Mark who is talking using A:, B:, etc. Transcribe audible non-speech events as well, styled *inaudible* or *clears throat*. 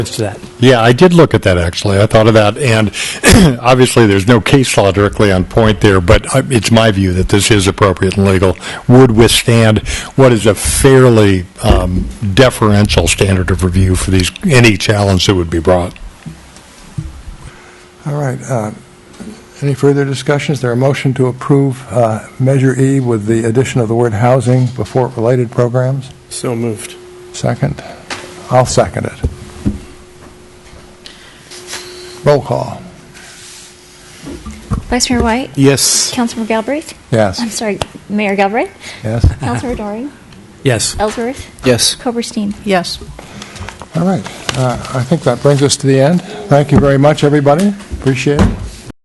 A: to that.
B: Yeah, I did look at that, actually. I thought of that, and *clears throat* obviously, there's no case law directly on point there, but I- it's my view that this is appropriate and legal, would withstand what is a fairly um, deferential standard of review for these, any challenge that would be brought.
C: All right. uh, Any further discussions? There a motion to approve uh, Measure E with the addition of the word housing before related programs?
D: So moved.
C: Second? I'll second it. Roll call.
E: Vice Mayor White?
D: Yes.
E: Councilmember Galbraith?
C: Yes.
E: I'm sorry, Mayor Galbraith?
C: Yes?
E: Councilor Doring?
A: Yes.
E: Ellsworth?
D: Yes.
E: Coberstein?
F: Yes.
C: All right. Uh, I think that brings us to the end. Thank you very much, everybody. Appreciate it.